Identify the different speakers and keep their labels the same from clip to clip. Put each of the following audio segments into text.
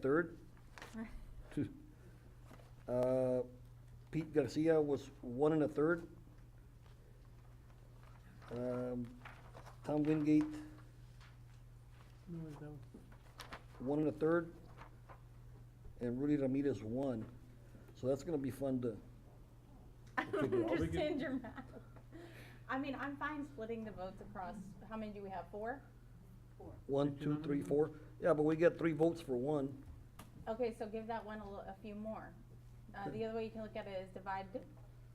Speaker 1: third. Uh, Pete Garcia was one and a third. Um, Tom Wingate,
Speaker 2: No, it's no.
Speaker 1: one and a third. And Rudy Ramirez, one. So that's gonna be fun to,
Speaker 3: I
Speaker 1: Okay,
Speaker 3: don't
Speaker 1: well, we can-
Speaker 3: understand your math. I mean, I'm fine splitting the votes across, how many do we have, four?
Speaker 1: one,
Speaker 2: Did you
Speaker 1: two,
Speaker 2: nominate
Speaker 1: three,
Speaker 2: him?
Speaker 1: four. Yeah, but we get three votes for one.
Speaker 3: Okay, so give that one a little, a few more. Uh, the other way you can look at it is divide,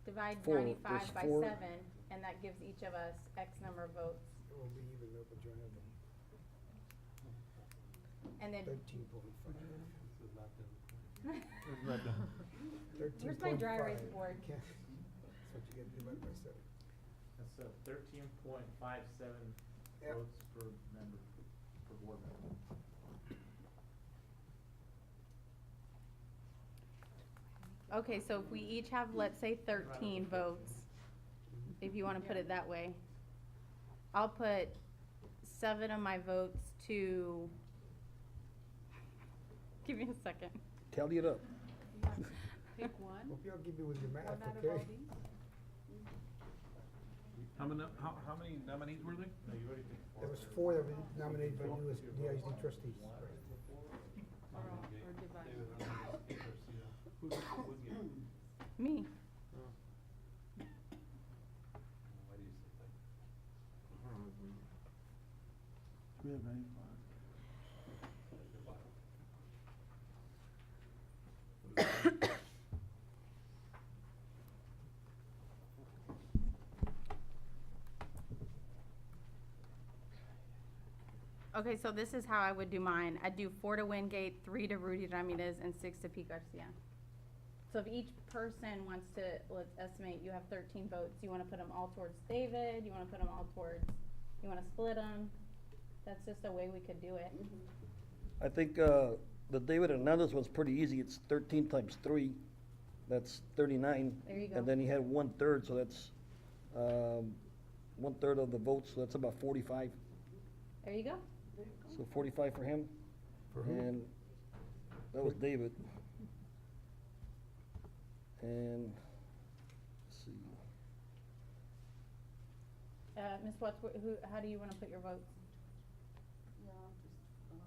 Speaker 3: divide
Speaker 1: Four, there's
Speaker 3: ninety-five by
Speaker 1: four.
Speaker 3: seven, and that gives each of us X number of votes,
Speaker 4: It will be even up with your number,
Speaker 3: and then.
Speaker 4: thirteen point five.
Speaker 3: Where's my dry erase board?
Speaker 4: That's what you get divided by seven.
Speaker 5: That's a thirteen point five seven
Speaker 4: Yep.
Speaker 5: votes per member, per board member.
Speaker 3: Okay, so if we each have, let's say thirteen votes, if you wanna put it that way, I'll put seven of my votes to, give me a second.
Speaker 1: Tally it up.
Speaker 6: Pick one,
Speaker 4: Hope y'all give me with your math,
Speaker 6: one out of all
Speaker 4: okay?
Speaker 6: these?
Speaker 2: How many, how, how many nominees were there?
Speaker 5: No, you already picked four.
Speaker 4: There was four that were nominated by you as DISD trustees.
Speaker 6: Or all- or divide?
Speaker 5: Who's, who's getting?
Speaker 3: Me,
Speaker 5: Why do you say that?
Speaker 2: We have nine.
Speaker 3: okay, so this is how I would do mine, I'd do four to Wingate, three to Rudy Ramirez, and six to Pete Garcia. So if each person wants to, let's estimate, you have thirteen votes, you wanna put them all towards David, you wanna put them all towards, you wanna split them? That's just a way we could do it.
Speaker 1: I think, uh, the David Hernandez one's pretty easy. It's thirteen times three. That's thirty-nine.
Speaker 3: There you go.
Speaker 1: And then he had one-third, so that's, um, one-third of the votes, so that's about forty-five.
Speaker 3: There you go.
Speaker 1: So forty-five for him.
Speaker 4: For who?
Speaker 1: And that was David. And, let's see,
Speaker 3: Uh, Ms. Watts, wh- who, how do you wanna put your votes?
Speaker 6: Yeah, I'll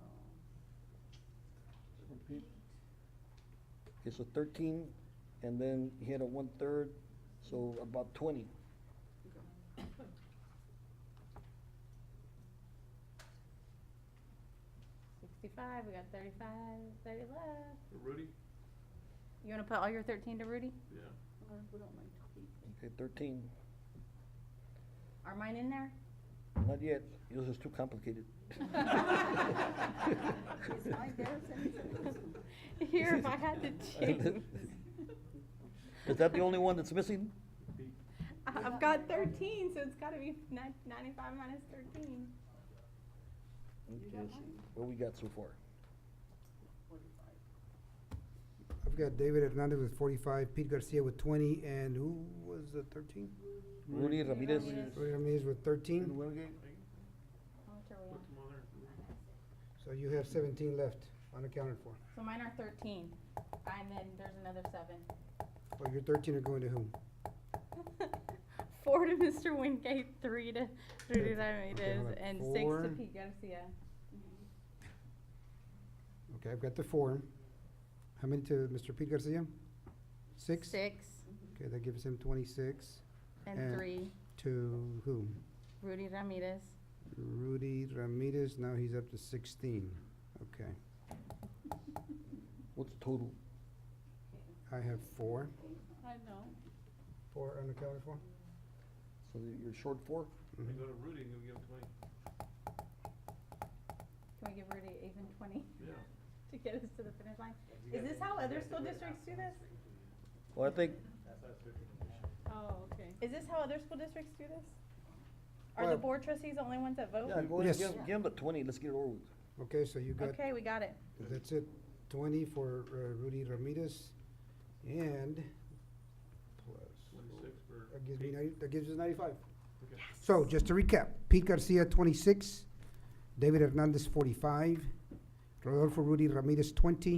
Speaker 6: just, uh,
Speaker 1: okay, so thirteen, and then he had a one-third, so about twenty.
Speaker 3: Sixty-five, we got 35, 30 left.
Speaker 5: Rudy?
Speaker 3: You wanna put all your thirteen to Rudy?
Speaker 5: Yeah.
Speaker 6: or if we don't like to keep it.
Speaker 1: Okay, thirteen.
Speaker 3: Are mine in there?
Speaker 1: Not yet, this is too complicated.
Speaker 6: It's my guess, and it's-
Speaker 3: Here, if I had to choose.
Speaker 1: Is that the only one that's missing?
Speaker 3: I- I've got thirteen, so it's gotta be nine- ninety-five minus thirteen.
Speaker 1: Okay, let's see what we got so far.
Speaker 4: I've got David Hernandez with forty-five, Pete Garcia with twenty, and who was the thirteen?
Speaker 1: Rudy Ramirez,
Speaker 3: Ramirez.
Speaker 4: Roy Ramirez with
Speaker 2: In
Speaker 4: thirteen,
Speaker 2: Wingate?
Speaker 3: How much are we on?
Speaker 4: so you have seventeen left unaccounted for.
Speaker 3: So mine are thirteen, and then there's another seven.
Speaker 4: Well, your thirteen are going to whom?
Speaker 3: Four to Mr. Wingate, three to Rudy
Speaker 4: hold
Speaker 3: Ramirez,
Speaker 4: on.
Speaker 3: and six to
Speaker 4: Four.
Speaker 3: Pete Garcia.
Speaker 4: Okay, I've got the four. How many to Mr. Pete Garcia? Six?
Speaker 3: Six.
Speaker 4: Okay, that gives him twenty-six.
Speaker 3: And
Speaker 4: And-
Speaker 3: three,
Speaker 4: To whom?
Speaker 3: Rudy Ramirez.
Speaker 4: Rudy Ramirez, now he's up to sixteen. Okay,
Speaker 1: what's total?
Speaker 4: I have four.
Speaker 6: I know.
Speaker 4: Four unaccounted for?
Speaker 1: So you're short four?
Speaker 5: We go to Rudy and we give him twenty.
Speaker 3: Can we give Rudy even twenty
Speaker 5: Yeah.
Speaker 3: to get us to the finish line? Is this how other school districts do this?
Speaker 1: Well, I think,
Speaker 5: That's how it's
Speaker 6: Oh, okay.
Speaker 3: Is this how other school districts do this? Are the
Speaker 4: Well-
Speaker 3: board trustees the only ones that vote?
Speaker 1: yeah, go ahead,
Speaker 4: Yes.
Speaker 1: give, give him the twenty, let's get it over with.
Speaker 4: Okay, so you got,
Speaker 3: Okay, we got it.
Speaker 4: that's it, twenty for uh, Rudy Ramirez, and plus,
Speaker 5: Twenty-six for.
Speaker 4: that gives me ninety, that gives us ninety-five.
Speaker 5: Okay.
Speaker 4: So, just to recap, Pete Garcia, twenty-six, David Hernandez, forty-five, Rodolfo Rudy Ramirez, twenty,